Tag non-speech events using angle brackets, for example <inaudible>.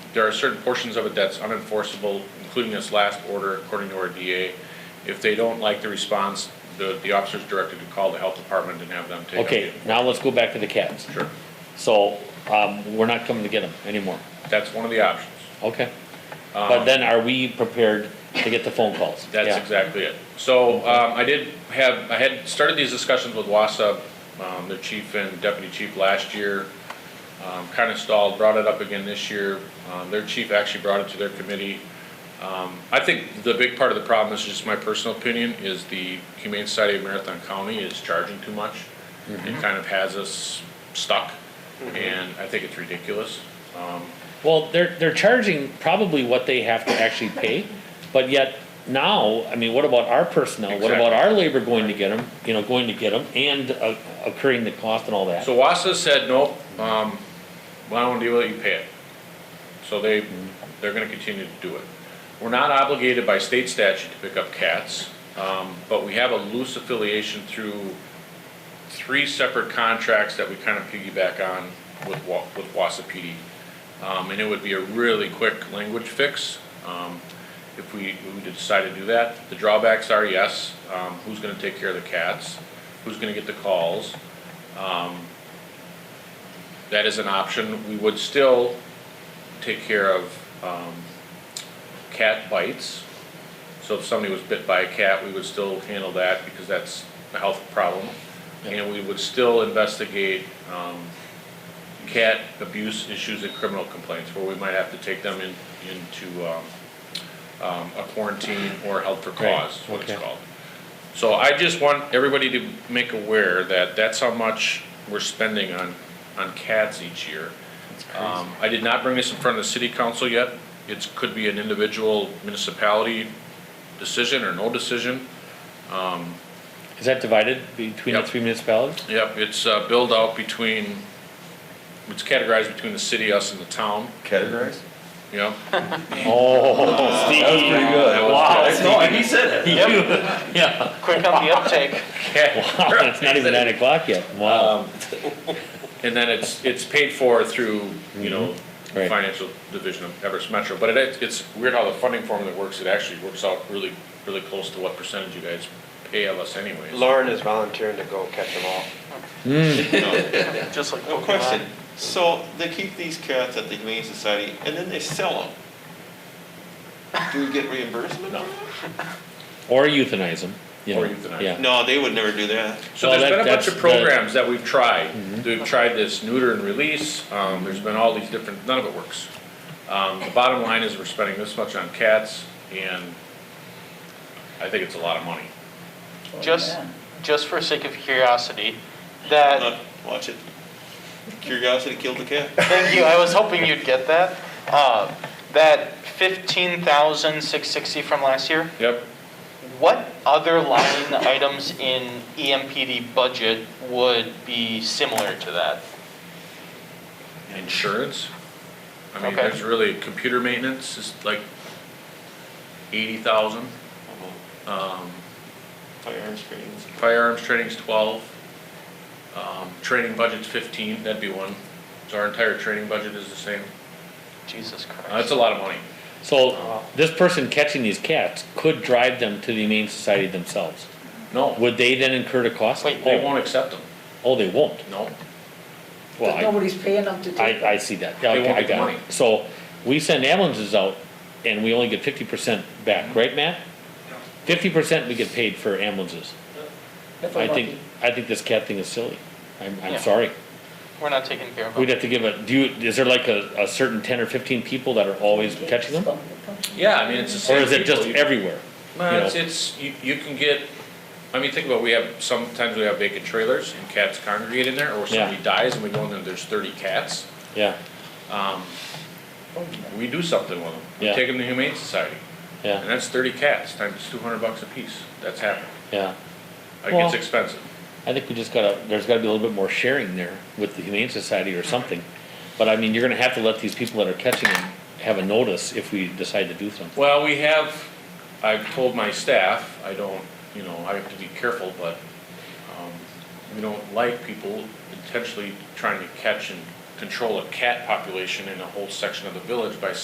there are certain portions of it that's unenforceable, including this last order according to our DA. If they don't like the response, the, the officer's directed to call the health department and have them take. up the- Okay, now let's go back to the cats. Sure, So, um, we're not coming to get them anymore. that's one of the options. Okay. But then are we prepared to get the phone calls? Um, That's Yeah. exactly it. So um, I did have, I had started these discussions with WASA, um, their chief and deputy chief last year. um, Kind of stalled, brought it up again this year. Um, Their chief actually brought it to their committee. Um, I think the big part of the problem, this is just my personal opinion, is the Humane Society of Marathon County is charging too much. It kind of has us stuck, and I think it's ridiculous. Well, they're, they're charging probably what they have to actually pay, but yet now, I mean, what about our personnel? What about our labor going to get them, you know, going to get them and uh, accruing the cost and all that? So WASA said, nope, um, well, I don't wanna deal with it, you pay it. So they, they're gonna continue to do it. We're not obligated by state statute to pick up cats, um, but we have a loose affiliation through three separate contracts that we kind of piggyback on with Wa, with WASA PD. Um, and it would be a really quick language fix, um, if we, we decide to do that. The drawbacks are, yes, um, who's gonna take care of the cats? Who's gonna get the calls? that is an option. We would still take care of um, cat bites. So if somebody was bit by a cat, we would still handle that because that's a health problem. And we would still investigate um, cat abuse issues and criminal complaints where we might have to take them in, into um, um, a quarantine or held for Right, cause, is what it's okay. called. So I just want everybody to make aware that that's how much we're spending on, on cats each year. Um, I did not bring this in front of the city council yet. It could be an individual municipality decision or no decision. Is that divided between the Yep. three <laughs> municipalities? Yep, it's uh, billed out between, it's categorized between the city, us, and the town, Categorized? Yep. Oh, <laughs> Steve. good. Wow. No, and he said <laughs> it. Yeah, Quick on the uptake. wow, it's not even nine o'clock yet. Wow. And then it's, it's paid for through, you know, Right. financial division of Everest Metro. But it, it's weird how the funding formula works. It actually works out really, really close to what percentage you guys pay of us anyways. Lauren is volunteering to go catch them all. Just like Hmm. No question. Pokemon. So they keep these cats at the Humane Society and then they sell them. Do we get reimbursement? No. Or euthanize them, you know? Or euthanize. Yeah. No, they would never do that. So Well, there's that- been a bunch that's of programs that we've tried. We've tried this neuter and release. Um, there's been all these different, none of it works. Um, the bottom line is we're spending this much on cats and I think it's a lot of money. Just, just for sake of curiosity, Look, that, Watch it. Curiosity killed the cat. thank you, I was hoping you'd get that. Uh, That fifteen thousand six sixty from last year, Yep. what other line items in E EMPD budget would be similar to that? Insurance. I mean, Okay. there's really, computer maintenance is like eighty thousand. Um, Firearms trainings. firearms training's twelve. Um, training budget's fifteen, that'd be one. So our entire training budget is the same. Jesus Uh, That's Christ. a lot of money. So this person catching these cats could drive them to the Humane Society themselves. No. Would they then incur the cost? Wait, They Oh, won't accept them, Oh, they won't. no. Well, But I, nobody's paying them to take I, I see that. They Okay, won't I get the got money. it. So we send ambulances out and we only get fifty percent Mm-hmm. back, right, Matt? Fifty percent we get paid for ambulances. if I I'm think, lucky. I think this cat thing is silly. I'm, I'm Yeah. sorry. We're not taking care of We'd them. have to give a, do you, is there like a, a certain ten or fifteen people that are always catching them? Yeah, I mean, it's the Or same. is it people. just You- everywhere? No, you it's, know? it's, you, you can get, I mean, think about, we have, sometimes we have vacant trailers and cats congregate in there, or somebody Yeah. dies and we go in there, there's thirty cats. Yeah, We do something with them. We Yeah. take them to Humane Society, and yeah, that's thirty cats times two hundred bucks a piece. That's happened. yeah. It Well- gets expensive. I think we just gotta, there's gotta be a little bit more sharing there with the Humane Society or something. But I mean, you're gonna have to let these people that are catching them have a notice if we decide to do something. Well, we have, I've told my staff, I don't, you know, I have to be careful, but, um, we don't like people intentionally trying to catch and control a cat population in a whole section of the village by